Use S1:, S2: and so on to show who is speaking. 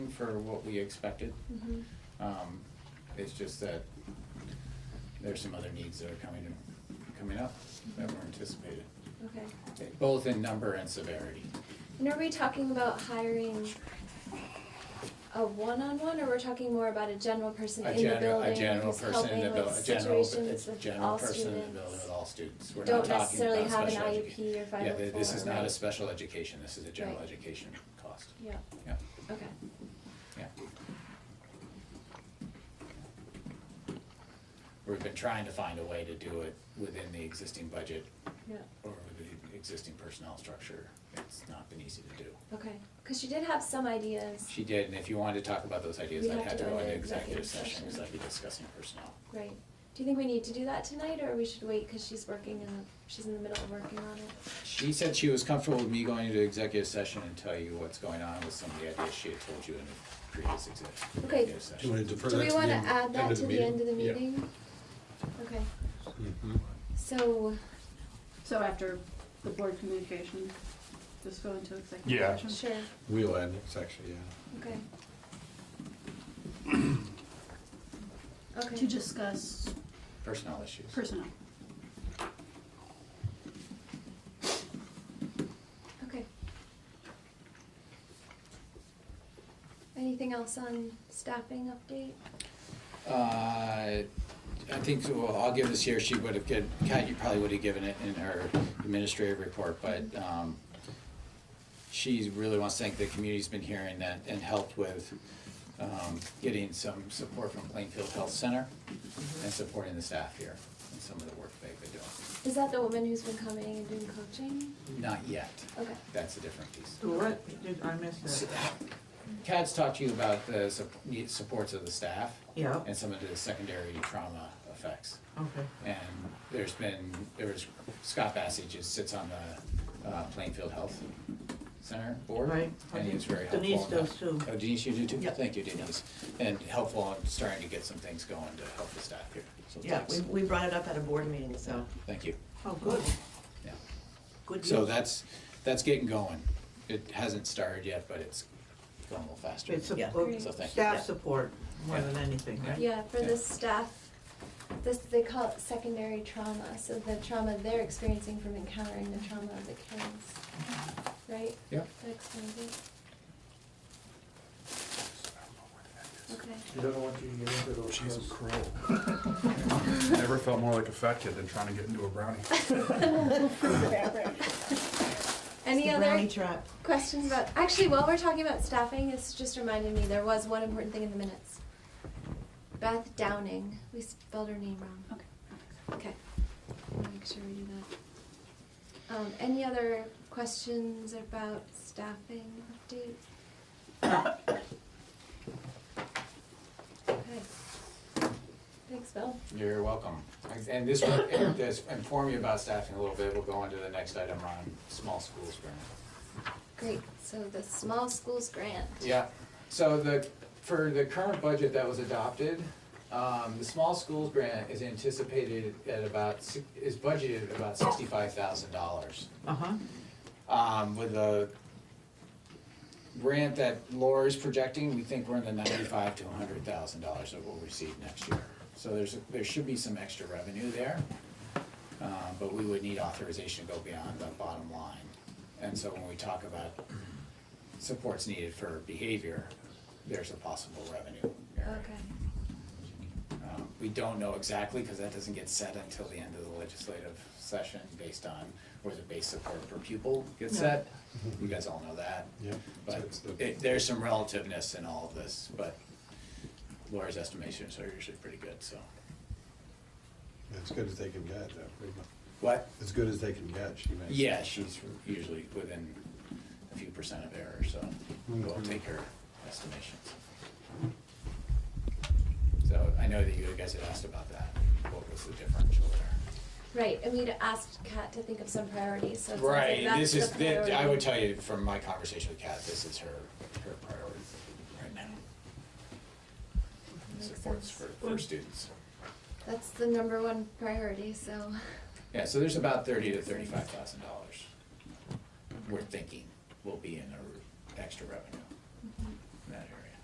S1: for what we expected.
S2: Mhm.
S1: Um, it's just that there's some other needs that are coming, coming up that were anticipated,
S2: Okay.
S1: both in number and severity.
S2: And are we talking about hiring a one-on-one, or we're talking more about a general person
S1: A
S2: in the
S1: general,
S2: building
S1: a general
S2: who's
S1: person in the
S2: helping
S1: building,
S2: with
S1: a general,
S2: situations
S1: a
S2: with
S1: general
S2: all
S1: person in the
S2: students?
S1: building with all students. We're not
S2: Don't
S1: talking
S2: necessarily
S1: about
S2: have an
S1: special education.
S2: IEP or five oh
S1: Yeah,
S2: four.
S1: th- this is not a
S2: right?
S1: special education, this is a general
S2: Right.
S1: education cost.
S2: Yeah.
S1: Yeah.
S2: Okay.
S1: Yeah. We've been trying to find a way to do it within the existing budget
S2: Yeah.
S1: or with the existing personnel structure. It's not been easy to do.
S2: Okay. Because you did have some ideas,
S1: She did, and if you wanted to talk about those ideas,
S2: We
S1: I'd
S2: have
S1: have to go into executive session
S2: session.
S1: because I'd be discussing personnel.
S2: right? Do you think we need to do that tonight, or we should wait because she's working and she's in the middle of working on it?
S1: She said she was comfortable with me going into executive session and tell you what's going on with some of the ideas she had told you in the previous exec-
S2: Okay.
S1: executive
S3: Do you
S1: session.
S3: want to defer
S2: Do
S3: that
S2: we
S3: to the
S2: want to
S3: end-
S2: add that
S3: of
S2: to the end of the
S3: Yeah.
S2: meeting? Okay.
S3: Mhm.
S2: So.
S4: So after the board communication, just go into
S3: Yeah.
S4: executive session?
S2: Sure.
S3: We'll add it, actually, yeah.
S2: Okay. Okay.
S4: To discuss
S1: Personnel issues.
S4: personnel.
S2: Okay. Anything else on staffing update?
S1: Uh, I think, well, I'll give this here, she would have, given- Kat, you probably would have given it in her administrative report, but um, she really wants to thank the community's been hearing that and helped with um, getting some support from Plainfield Health Center and supporting the staff here and some of the work they've been doing.
S2: Is that the woman who's been coming and doing coaching?
S1: Not yet,
S2: Okay.
S1: that's a different piece.
S5: What? Did, I missed
S1: S-
S5: that.
S1: Kat's talked to you about the sup- need- supports of the staff
S5: Yeah,
S1: and some of the secondary trauma effects.
S5: okay.
S1: And there's been, there was, Scott Bassage just sits on the uh, Plainfield Health Center board.
S5: Right.
S1: And he was very helpful.
S5: Denise
S1: in that.
S5: does too.
S1: Oh, Denise, you do too?
S5: Yep.
S1: Thank you, Denise. And helpful in starting to get some things going to help the staff here. So
S5: Yeah,
S1: thanks.
S5: we, we brought it up at a board meeting, so.
S1: Thank you.
S5: Oh, good.
S1: Yeah.
S5: Good
S1: So
S5: deal.
S1: that's, that's getting going. It hasn't started yet, but it's going a little faster.
S5: It's
S1: Yeah.
S5: a-
S1: So thank you.
S5: staff support more
S1: Yeah.
S5: than anything, right?
S2: Yeah, for the staff, this, they call it secondary trauma, so the trauma they're experiencing from encountering the trauma of the kids. Right?
S1: Yep.
S2: That explains it. Okay.
S6: You don't want you to get into those.
S7: She's a crow. Never felt more like a fat kid than trying to get into a brownie.
S2: Any
S5: The
S2: other?
S5: brownie trap.
S2: questions about actually while we're talking about staffing this just reminded me there was one important thing in the minutes beth downing we spelled her name wrong
S4: Okay.
S2: okay We'll make sure we do that um, any other questions about staffing update okay thanks bill
S1: You're welcome. And this, will- and this, inform you about staffing a little bit. We'll go into the next item on small schools grant.
S2: great so the small schools grant
S1: Yeah, so the, for the current budget that was adopted, um, the small schools grant is anticipated at about, si- is budgeted at about sixty-five thousand dollars.
S5: Uh-huh,
S1: Um, with a grant that Laura's projecting, we think we're in the ninety-five to hundred thousand dollars that we'll receive next year. So there's, there should be some extra revenue there, um, but we would need authorization to go beyond the bottom line. And so when we talk about supports needed for behavior, there's a possible revenue area.
S2: okay
S1: Um, We don't know exactly, because that doesn't get set until the end of the legislative session, based on where the base support per pupil gets
S5: Yeah.
S1: set. You guys all know that.
S3: Mm-hmm. Yeah. So
S1: But
S3: it's the-
S1: it- there's some relativeness in all of this, but Laura's estimations are usually pretty good, so.
S3: As good as they can get, though, pretty much.
S1: What?
S3: As good as they can get, she makes.
S1: Yeah, she's usually within a few percent of error, so we'll
S3: Mhm.
S1: take her estimations. So I know that you guys had asked about that, what was the differential there?
S2: Right, and we'd asked Kat to think of some priorities, so it sounds like
S1: Right,
S2: that's
S1: this is,
S2: the
S1: thi- I would
S2: priority.
S1: tell you from my conversation with Kat, this is her, her priority right now.
S2: Makes
S1: Supports for,
S2: sense.
S1: for students.
S2: That's the number one priority, so,
S1: Yeah, so there's about thirty to thirty-five thousand dollars we're thinking will be in our extra revenue.